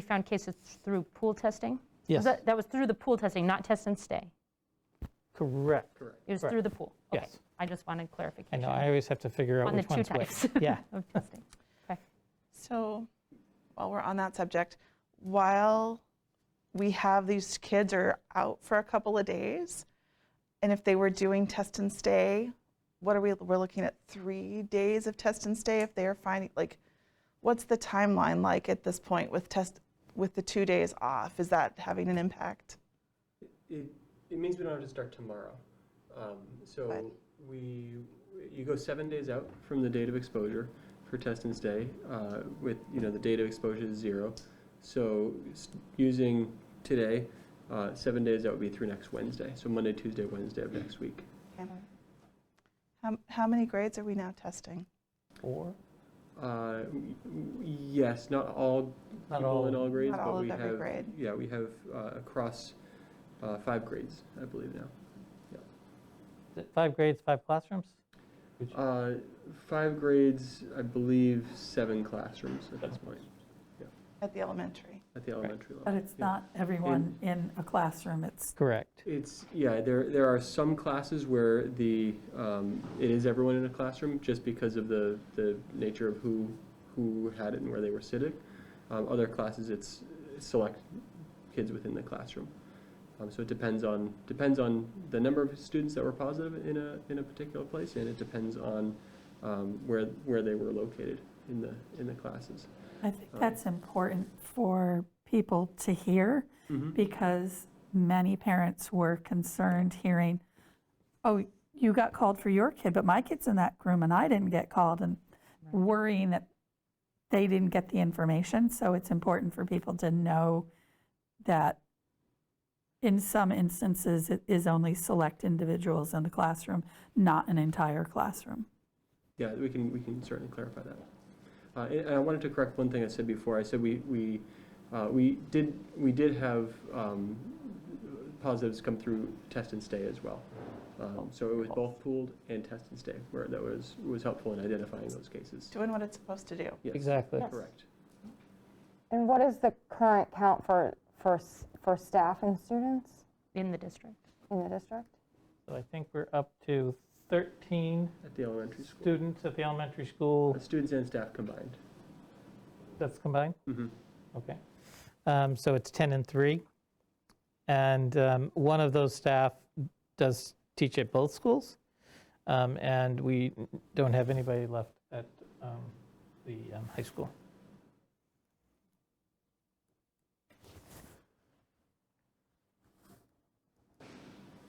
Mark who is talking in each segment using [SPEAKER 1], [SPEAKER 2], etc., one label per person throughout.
[SPEAKER 1] found cases through pool testing?
[SPEAKER 2] Yes.
[SPEAKER 1] That that was through the pool testing, not test and stay.
[SPEAKER 2] Correct.
[SPEAKER 1] It was
[SPEAKER 2] Correct.
[SPEAKER 1] through the pool. Okay.
[SPEAKER 2] Yes.
[SPEAKER 1] I just wanted
[SPEAKER 2] I
[SPEAKER 1] clarification
[SPEAKER 2] know, I always have to figure out
[SPEAKER 1] on the
[SPEAKER 2] which
[SPEAKER 1] two
[SPEAKER 2] one's which.
[SPEAKER 1] types
[SPEAKER 2] Yeah.
[SPEAKER 1] of testing. Okay.
[SPEAKER 3] So, while we're on that subject, while we have these kids are out for a couple of days, and if they were doing test and stay, what are we? We're looking at three days of test and stay. If they are finding like, what's the timeline like at this point with test with the two days off? Is that having an impact?
[SPEAKER 4] It, it means we don't have to start tomorrow. Um,
[SPEAKER 3] Right.
[SPEAKER 4] So we, you go seven days out from the date of exposure for test and stay uh, with, you know, the date of exposure is zero. So s- using today, uh, seven days out would be through next Wednesday. So Monday, Tuesday, Wednesday of next week.
[SPEAKER 3] How, how many grades are we now testing?
[SPEAKER 2] Or,
[SPEAKER 4] Uh, w- w- Yes, not all
[SPEAKER 2] Not
[SPEAKER 4] people in
[SPEAKER 2] all.
[SPEAKER 4] all grades,
[SPEAKER 3] Not all
[SPEAKER 4] but
[SPEAKER 3] of
[SPEAKER 4] we
[SPEAKER 3] every
[SPEAKER 4] have,
[SPEAKER 3] grade.
[SPEAKER 4] yeah, we have uh, across uh, five grades, I believe now.
[SPEAKER 2] is it five grades, five classrooms?
[SPEAKER 4] Uh, Five grades, I believe, seven classrooms at this point,
[SPEAKER 3] At the elementary.
[SPEAKER 4] at the elementary
[SPEAKER 5] But
[SPEAKER 4] level.
[SPEAKER 5] it's not everyone in a classroom, it's,
[SPEAKER 2] Correct.
[SPEAKER 4] It's, yeah, there, there are some classes where the, um, it is everyone in a classroom, just because of the, the nature of who, who had it and where they were sitting. Um, Other classes, it's select kids within the classroom. Um, So it depends on, depends on the number of students that were positive in a, in a particular place, and it depends on um, where, where they were located in the, in the classes.
[SPEAKER 5] I think that's important for people to hear,
[SPEAKER 4] Mm-hmm.
[SPEAKER 5] because many parents were concerned hearing, oh, you got called for your kid, but my kid's in that room and I didn't get called, and worrying that they didn't get the information. So it's important for people to know that in some instances, it is only select individuals in the classroom, not an entire classroom.
[SPEAKER 4] Yeah, we can, we can certainly clarify that. Uh, And and I wanted to correct one thing I said before. I said we, we, uh, we did, we did have um, positives come through test and stay as well. Um, So it was both pooled and test and stay, where that was, was helpful in identifying those cases.
[SPEAKER 3] Doing what it's supposed to do.
[SPEAKER 4] Yes,
[SPEAKER 2] Exactly.
[SPEAKER 4] Correct.
[SPEAKER 6] And what is the current count for, for, s- for staff and students
[SPEAKER 1] In the district.
[SPEAKER 6] in the district?
[SPEAKER 2] So I think we're up to 13
[SPEAKER 4] At the elementary school.
[SPEAKER 2] students at the elementary school.
[SPEAKER 4] Uh, Students and staff combined.
[SPEAKER 2] That's combined?
[SPEAKER 4] Mhm.
[SPEAKER 2] Okay. Um, So it's 10 and 3. And um, one of those staff does teach at both schools. Um, And we don't have anybody left at um, the um, high school.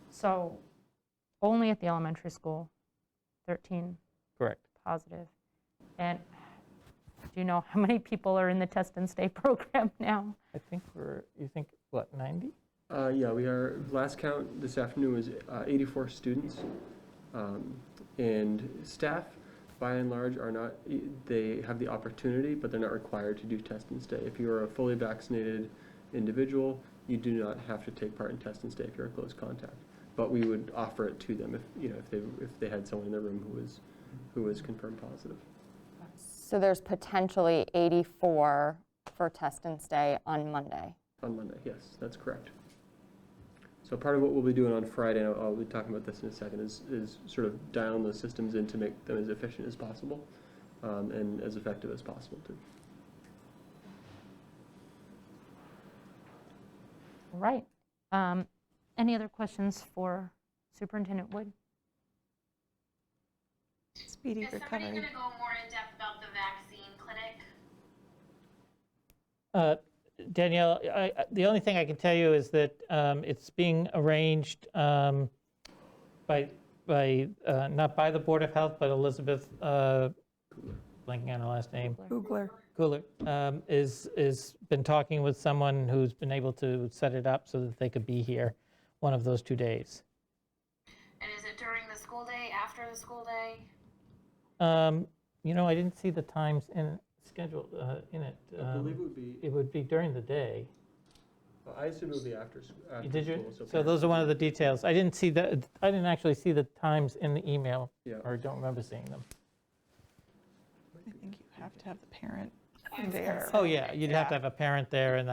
[SPEAKER 1] So only at the elementary school, 13
[SPEAKER 2] Correct.
[SPEAKER 1] positive. And do you know how many people are in the test and stay program now?
[SPEAKER 2] I think we're, you think, what, 90?
[SPEAKER 4] Uh, Yeah, we are, last count this afternoon was uh, 84 students. Um, And staff, by and large, are not, e, they have the opportunity, but they're not required to do test and stay. If you are a fully vaccinated individual, you do not have to take part in test and stay if you're a close contact. But we would offer it to them if, you know, if they, if they had someone in their room who was, who was confirmed positive.
[SPEAKER 6] So there's potentially 84 for test and stay on Monday.
[SPEAKER 4] On Monday, yes, that's correct. So part of what we'll be doing on Friday, and I'll I'll be talking about this in a second, is, is sort of dialing those systems in to make them as efficient as possible um, and as effective as possible too.
[SPEAKER 1] All Right. Um, Any other questions for Superintendent Wood?
[SPEAKER 3] Speedy
[SPEAKER 7] Is somebody
[SPEAKER 3] recovery.
[SPEAKER 7] going to go more in depth about the vaccine clinic?
[SPEAKER 2] Uh, Danielle, I- I- the only thing I can tell you is that um, it's being arranged um, by, by, uh, not by the Board of Health, but Elizabeth, uh, blanking on her last name,
[SPEAKER 5] Googler.
[SPEAKER 2] Cooler, um, is, is been talking with someone who's been able to set it up so that they could be here one of those two days.
[SPEAKER 7] And is it during the school day, after the school day?
[SPEAKER 2] Um, You know, I didn't see the times in, scheduled uh, in it. Um,
[SPEAKER 4] would be,
[SPEAKER 2] It would be during the day.
[SPEAKER 4] I assume it would be after,
[SPEAKER 2] You Did you? So those are one of the details. I didn't see the, I didn't actually see the times in the email,
[SPEAKER 4] Yeah.
[SPEAKER 2] or don't remember seeing them.
[SPEAKER 3] I think you have to have the parent there.
[SPEAKER 2] Oh, yeah, you'd have to have a parent there, and